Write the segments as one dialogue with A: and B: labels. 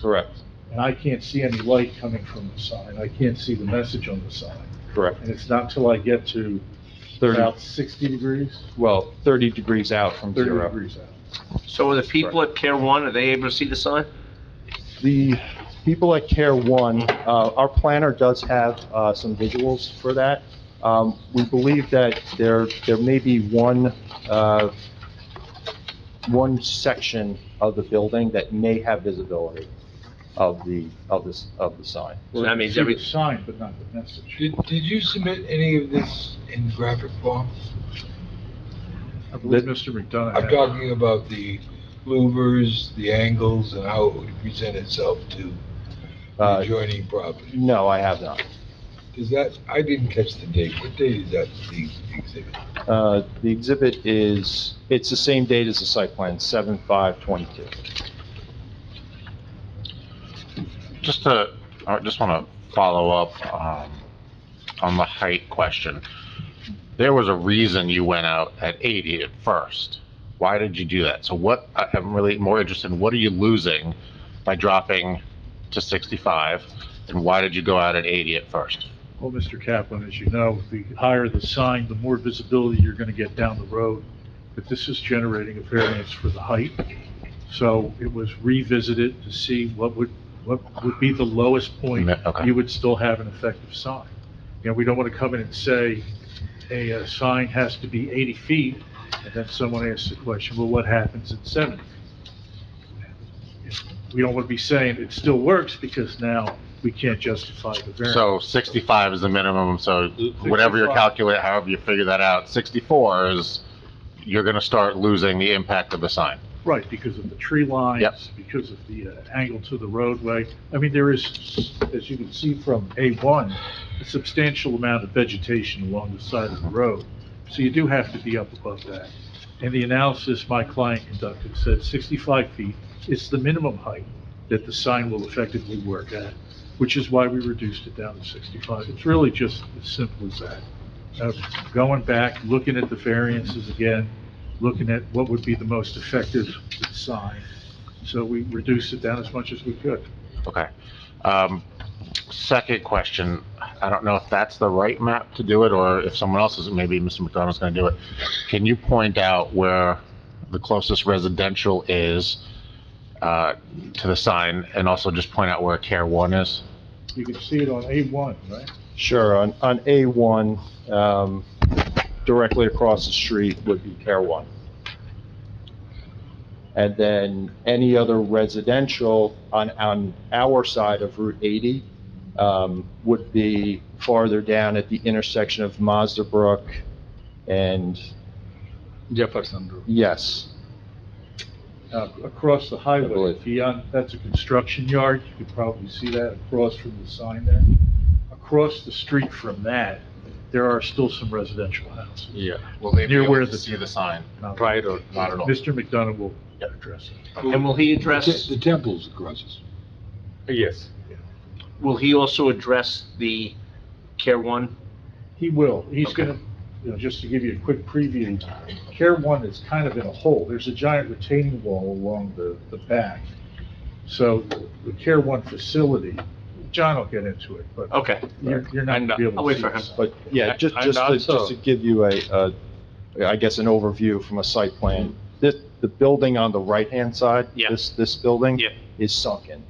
A: Correct,
B: and I can't see any light coming from the sign. I can't see the message on the sign.
A: correct.
B: And it's not till I get to
A: Thirty,
B: about 60 degrees,
A: well, thirty degrees out from
B: 30
A: zero.
B: degrees out.
C: So are the people at Pier 1, are they able to see the sign?
D: The people at Care One, uh, our planner does have uh, some visuals for that. Um, We believe that there, there may be one, uh, one section of the building that may have visibility of the, of this, of the sign.
C: So that means
B: See
C: every,
B: the sign, but not the message.
E: Did, did you submit any of this in graphic form?
B: I believe Mr. McDonough.
E: I'm
B: had-
E: talking about the louvers, the angles, and how it would present itself to the
D: Uh,
E: adjoining property.
D: No, I have not.
E: Is that, I didn't catch the date. What date is that, the exhibit?
D: Uh, The exhibit is, it's the same date as the site plan, 7/5/22.
F: Just to, I just want to follow up um, on the height question. There was a reason you went out at 80 at first. Why did you do that? So what, I- I'm really more interested in, what are you losing by dropping to 65? And why did you go out at 80 at first?
B: Well, Mr. Kaplan, as you know, the higher the sign, the more visibility you're going to get down the road. But this is generating a variance for the height. So it was revisited to see what would, what would be the lowest point
F: Okay.
B: you would still have an effective sign. You know, we don't want to come in and say a, uh sign has to be 80 feet, and then someone asks the question, well, what happens at 70? We don't want to be saying it still works because now we can't justify the variance.
F: So 65 is the minimum, so whatever you
B: 65.
F: calculate, however you figure that out, 64 is, you're going to start losing the impact of the sign.
B: Right, because of the tree
F: Yep.
B: lines, because of the uh, angle to the roadway. I mean, there is, as you can see from A1, a substantial amount of vegetation along the side of the road. So you do have to be up above that. And the analysis my client conducted said 65 feet is the minimum height that the sign will effectively work at, which is why we reduced it down to 65. It's really just as simple as that. Uh, Going back, looking at the variances again, looking at what would be the most effective sign. So we reduced it down as much as we could.
F: Okay. Um, Second question, I don't know if that's the right map to do it, or if someone else is, maybe Mr. McDonald's gonna do it. Can you point out where the closest residential is uh, to the sign, and also just point out where Care One is?
B: You can see it on A1, right?
D: Sure, on, on A1, um, directly across the street would be Care One. And then any other residential on, on our side of Route 80, um, would be farther down at the intersection of Mazda Brook and,
A: Jefferson.
D: yes,
B: Uh, Across the highway,
D: believe.
B: beyond, that's a construction yard, you could probably see that across from the sign there. Across the street from that, there are still some residential houses.
F: Yeah.
B: Will they be Near able where to the-
F: see the sign?
B: Not-
F: Right, or not at all?
B: Mr. McDonough will address it.
C: and will he address,
E: The temple's across us.
A: Yes.
C: will he also address the Care 1?
B: He will, he's gonna, you know, just to give you a quick preview, Care One is kind of in a hole, there's a giant retaining wall along the, the back. So the Care One facility, John will get into it, but
C: Okay,
B: you're, you're not gonna be able to see.
C: I'll wait for him.
B: this.
D: but, yeah, just,
A: And
D: just to,
A: also-
D: just to give you a, a- I guess, an overview from a site plan. This, the building on the right-hand side,
C: Yeah.
D: this, this building.
C: Yeah.
D: Is sunken.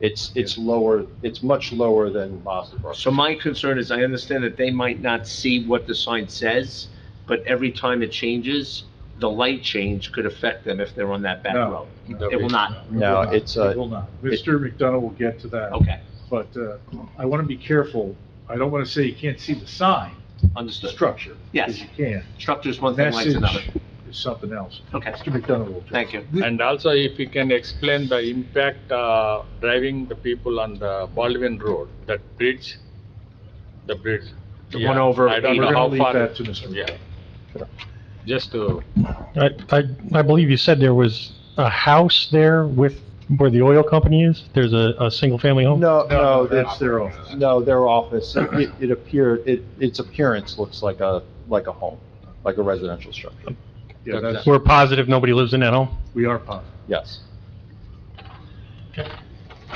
D: It's, it's lower, it's much lower than Mazda Brook.
C: so my concern is, I understand that they might not see what the sign says, but every time it changes, the light change could affect them if they're on that back
B: No.
C: road. It will not,
D: No, it's, uh,
B: It will not, Mr. McDonough will get to that.
C: okay,
B: But, uh, I wanna be careful, I don't wanna say you can't see the sign, the
C: understood.
B: structure.
C: Yes.
B: Because you can.
C: Structure's one thing, light's
B: Message
C: another.
B: is something else.
C: Okay,
B: Mr. McDonough will. address it.
C: thank you.
A: And also if you can explain the impact, uh, driving the people on the Baldwin Road, that bridge, the bridge.
C: The one over
A: Yeah, I don't
C: eight.
B: We're
A: know
B: gonna
A: how
B: leave
A: far.
B: that to Mr. McDonough.
A: Yeah. Just to,
G: I, I, I believe you said there was a house there with, where the oil company is? There's a, a single-family home?
D: No,
B: No,
D: no,
B: that's
D: that's,
B: their office.
D: no, their office, it, it appeared, it, its appearance looks like a, like a home, like a residential structure,
B: Yeah, that's,
G: We're positive nobody lives in that home?
B: we are positive.
D: yes.